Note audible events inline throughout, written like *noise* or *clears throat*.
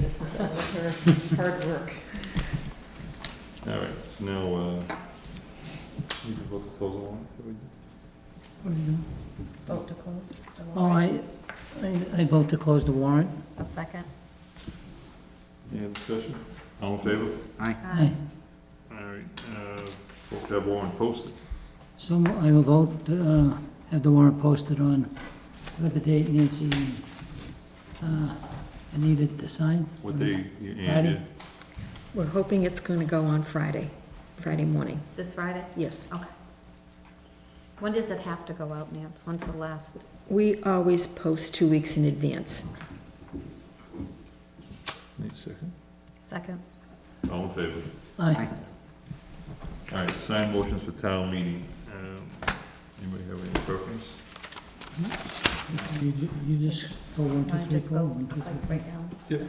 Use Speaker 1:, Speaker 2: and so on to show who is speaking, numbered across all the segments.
Speaker 1: This is all of her hard work.
Speaker 2: All right, so now, uh, you can vote to close the warrant. that we did.
Speaker 1: Vote to close the
Speaker 3: Oh,
Speaker 1: warrant.
Speaker 3: I, I I vote to close the warrant.
Speaker 1: A second.
Speaker 2: Any other discussion? All in favor?
Speaker 3: Aye.
Speaker 2: All right, uh, vote to have warrant posted.
Speaker 3: So I will vote, to, uh, have the warrant posted on whatever date Nancy, uh, needed to sign.
Speaker 2: What day, you- and,
Speaker 3: Friday.
Speaker 2: uh,
Speaker 4: We're hoping it's going to go on Friday, Friday morning,
Speaker 1: This Friday?
Speaker 4: yes.
Speaker 1: Okay. When does it have to go out, Nance? When's the last?
Speaker 4: We always post two weeks in advance.
Speaker 2: Wait a second.
Speaker 1: Second?
Speaker 2: All in favor?
Speaker 3: Aye.
Speaker 2: All right, sign motions for town meeting. Um, Anybody have any preference?
Speaker 3: You ju- you just go one,
Speaker 1: Want to
Speaker 3: two, three,
Speaker 1: just go
Speaker 3: four, one, two,
Speaker 1: like
Speaker 3: three.
Speaker 1: right down?
Speaker 2: Yep.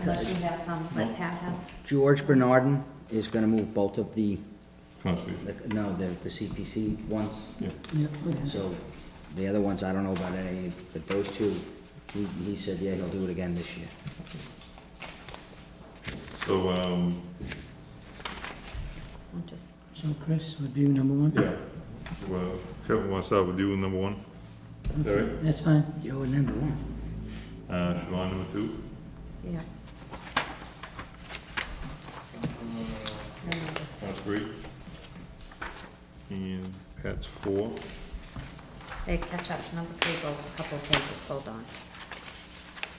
Speaker 1: Unless you have some, like Pat had.
Speaker 5: George Bernardin is gonna move both of the,
Speaker 2: Constitution.
Speaker 5: the- no, the, the CPC ones,
Speaker 3: Yeah, okay.
Speaker 5: so the other ones, I don't know about any, but those two, he, he said, yeah, he'll do it again this year.
Speaker 2: So, um,
Speaker 1: I'm just,
Speaker 3: So Chris would be number one?
Speaker 2: yeah, well, Kevin, want to start with you, number one? Is that right?
Speaker 3: That's fine.
Speaker 5: You're number one.
Speaker 2: Uh, Siobhan, number two?
Speaker 1: yeah.
Speaker 2: That's three. And Pat's four.
Speaker 1: They catch up. Number three goes a couple of pages, hold on.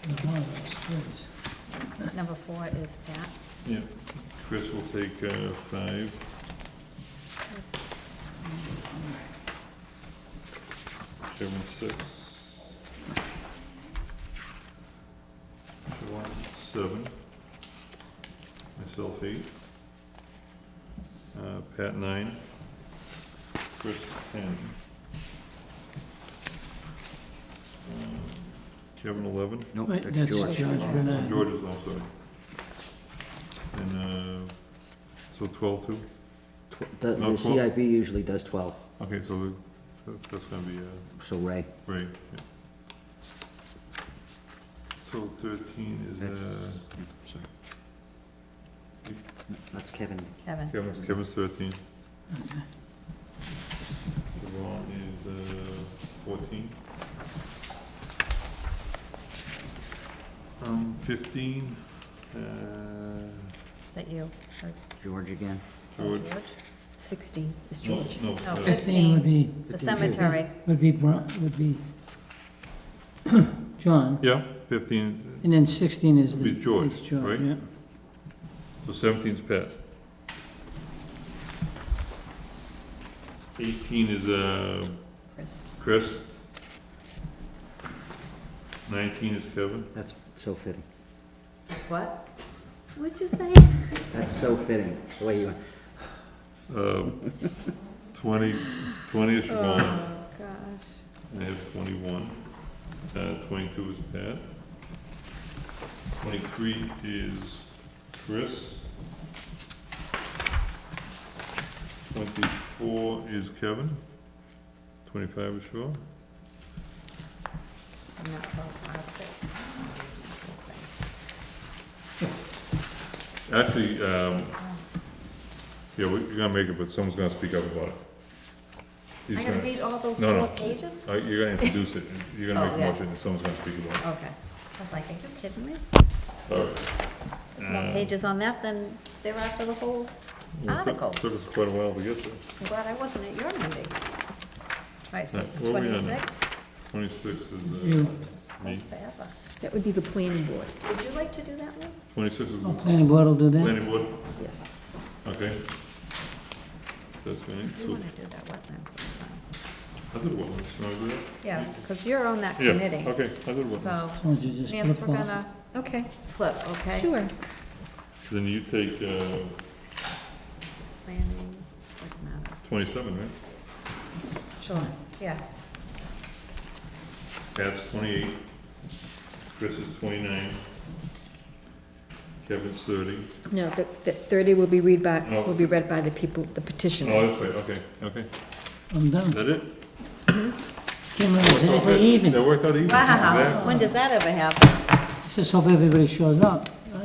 Speaker 3: The warrant is closed.
Speaker 1: Number four is Pat.
Speaker 2: Yeah. Chris will take uh, five. Kevin, six. Siobhan, seven. Myself, eight. Uh, Pat, nine. Chris, ten. Um, Kevin, eleven.
Speaker 5: Nope,
Speaker 3: Right,
Speaker 5: that's
Speaker 3: that's
Speaker 5: George.
Speaker 3: George Bernard.
Speaker 2: George is also. And, uh, so twelve too?
Speaker 5: Tw- The,
Speaker 2: No,
Speaker 5: the
Speaker 2: twelve.
Speaker 5: CIB usually does twelve,
Speaker 2: Okay, so the- that- that's gonna be, uh,
Speaker 5: so Ray,
Speaker 2: great, yeah. So thirteen is, uh,
Speaker 5: that's Kevin.
Speaker 1: Kevin.
Speaker 2: Kevin's, Kevin's thirteen. Siobhan is, uh, fourteen. Um, fifteen, uh,
Speaker 1: Is that you? Or
Speaker 5: George again.
Speaker 2: George,
Speaker 4: Sixteen is
Speaker 2: no,
Speaker 4: George.
Speaker 2: no,
Speaker 1: No,
Speaker 2: uh,
Speaker 3: Fifteen would be,
Speaker 1: The
Speaker 5: Fifteen, George.
Speaker 1: cemetery.
Speaker 3: would be, Bron- would be *clears throat* John.
Speaker 2: yeah, fifteen,
Speaker 3: And then sixteen is the.
Speaker 2: Be George,
Speaker 3: is
Speaker 2: right?
Speaker 3: yeah.
Speaker 2: So seventeen's passed. Eighteen is, uh,
Speaker 1: Chris.
Speaker 2: Chris. Nineteen is Kevin.
Speaker 5: That's so fitting.
Speaker 1: It's what? What'd you say?
Speaker 5: That's so fitting, the way you,
Speaker 2: Um, *laughs* twenty, twenty is Siobhan.
Speaker 1: Oh, gosh.
Speaker 2: I have twenty-one. Uh, twenty-two is Pat. Twenty-three is Chris. Twenty-four is Kevin. Twenty-five is Siobhan.
Speaker 1: I'm not so proud of it.
Speaker 2: Actually, um, yeah, we- you're gonna make it, but someone's gonna speak up about it. He's
Speaker 1: I gotta
Speaker 2: gonna-
Speaker 1: read all those
Speaker 2: No, no.
Speaker 1: four pages?
Speaker 2: uh, You're gonna introduce it, you're gonna
Speaker 1: Oh,
Speaker 2: make a
Speaker 1: yeah.
Speaker 2: motion, and someone's gonna speak about
Speaker 1: Okay. I was like, are you kidding me?
Speaker 2: it. All right.
Speaker 1: There's more
Speaker 2: Uh,
Speaker 1: pages on that than there are for the whole,
Speaker 2: Well, it took-
Speaker 1: Articles.
Speaker 2: Took us quite a while to get there.
Speaker 1: I'm glad I wasn't at your meeting. Right, so
Speaker 2: Right, what were we on?
Speaker 1: twenty-six,
Speaker 2: Twenty-six is, uh,
Speaker 3: You,
Speaker 2: me.
Speaker 1: goes forever.
Speaker 4: that would be the planning board,
Speaker 1: Would you like to do that one?
Speaker 2: Twenty-six is
Speaker 3: oh, planning board will do that?
Speaker 2: planning board,
Speaker 4: yes.
Speaker 2: okay. That's fine.
Speaker 1: You
Speaker 2: So,
Speaker 1: wanna do that wetlands sometime.
Speaker 2: I did one, so I did.
Speaker 1: uh, Yeah, because you're on that
Speaker 2: Yeah,
Speaker 1: committee,
Speaker 2: okay, I did one.
Speaker 1: so,
Speaker 3: So you just
Speaker 1: Nance, we're
Speaker 3: flip-flop.
Speaker 1: gonna
Speaker 4: Okay,
Speaker 1: flip, okay?
Speaker 4: sure.
Speaker 2: Then you take, uh,
Speaker 1: Planning, doesn't matter.
Speaker 2: twenty-seven, right?
Speaker 1: Sure. Yeah, *laughs*
Speaker 2: Pat's twenty-eight, Chris is twenty-nine, Kevin's thirty.
Speaker 4: No, the, the thirty will be read by,
Speaker 2: No.
Speaker 4: will be read by the people, the
Speaker 2: Oh,
Speaker 4: petitioner.
Speaker 2: that's right, okay, okay.
Speaker 3: I'm
Speaker 2: Is
Speaker 3: done.
Speaker 2: that it?
Speaker 3: Can't remember,
Speaker 2: Worked
Speaker 3: is
Speaker 2: out
Speaker 3: anything
Speaker 2: good.
Speaker 3: even?
Speaker 2: That worked out even.
Speaker 1: wow,
Speaker 2: Exactly.
Speaker 1: when does that ever happen?
Speaker 3: Let's just hope everybody shows up.